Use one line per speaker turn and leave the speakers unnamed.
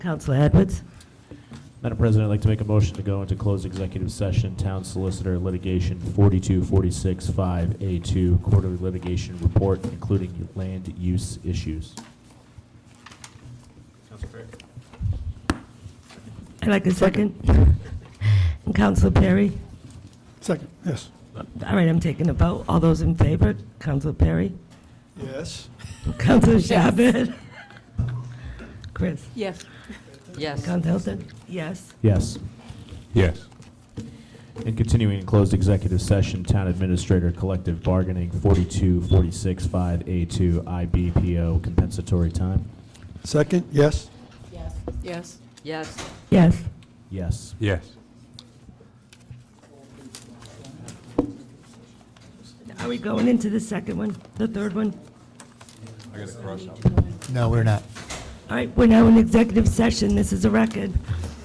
Counselor Edwards?
Madam President, I'd like to make a motion to go into closed executive session, Town Solicitor Litigation 42465A2, Quarterly Litigation Report, including land use issues.
I'd like a second. And Counselor Perry?
Second, yes.
All right, I'm taking a vote. All those in favor? Counselor Perry?
Yes.
Counselor Shabbat? Chris?
Yes. Yes.
Counselor Hilton? Yes.
Yes.
Yes.
And continuing in closed executive session, Town Administrator Collective Bargaining 42465A2, IBPO Compensatory Time.
Second, yes.
Yes. Yes.
Yes.
Yes.
Yes.
Are we going into the second one, the third one?
No, we're not.
All right, we're now in executive session. This is a record.